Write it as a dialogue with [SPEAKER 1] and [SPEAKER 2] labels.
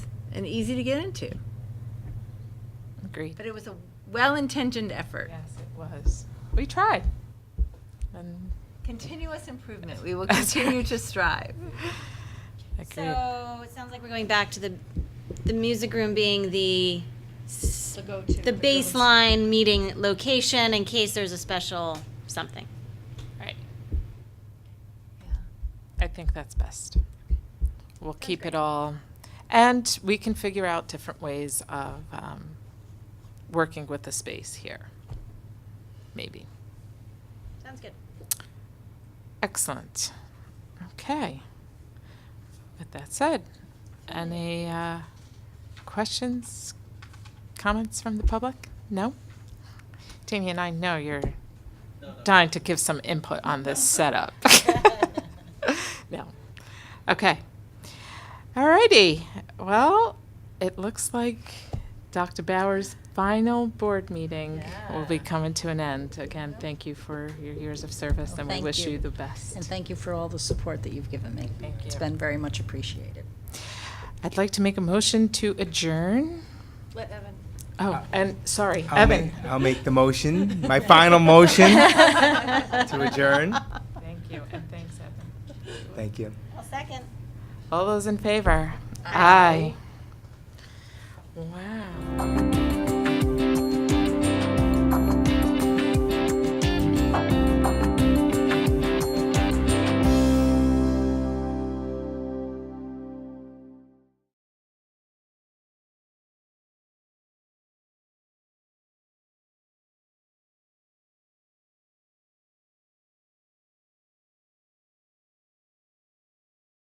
[SPEAKER 1] and easy to get into.
[SPEAKER 2] Agreed.
[SPEAKER 1] But it was a well-intentioned effort.
[SPEAKER 2] Yes, it was. We tried. And
[SPEAKER 1] Continuous improvement. We will
[SPEAKER 2] That's right.
[SPEAKER 1] continue to strive.
[SPEAKER 2] agreed.
[SPEAKER 3] So it sounds like we're going back to the, the music room being the, s- the baseline meeting location in case there's a special something.
[SPEAKER 2] right. I think that's best. We'll keep it all, and we can figure out different ways of um, working with the space here. Maybe.
[SPEAKER 3] Sounds good.
[SPEAKER 2] Excellent. Okay. With that said, any uh, questions, comments from the public? No? Damien, I know you're dying to give some input on this setup. No. Okay. All righty. Well, it looks like Dr. Bauer's final board meeting will be coming to an end. Again, thank you for your years of service, and we
[SPEAKER 4] thank
[SPEAKER 2] wish
[SPEAKER 4] you.
[SPEAKER 2] you the best.
[SPEAKER 4] And thank you for all the support that you've given me.
[SPEAKER 2] Thank
[SPEAKER 4] It's
[SPEAKER 2] you.
[SPEAKER 4] been very much appreciated.
[SPEAKER 2] I'd like to make a motion to adjourn.
[SPEAKER 1] Let Evan.
[SPEAKER 2] Oh, and sorry,
[SPEAKER 5] I'll make-
[SPEAKER 2] Evan.
[SPEAKER 5] I'll make the motion, my final motion to adjourn.
[SPEAKER 2] Thank you, and thanks, Evan.
[SPEAKER 5] Thank you.
[SPEAKER 3] I'll second.
[SPEAKER 2] All those in favor? Aye. Wow.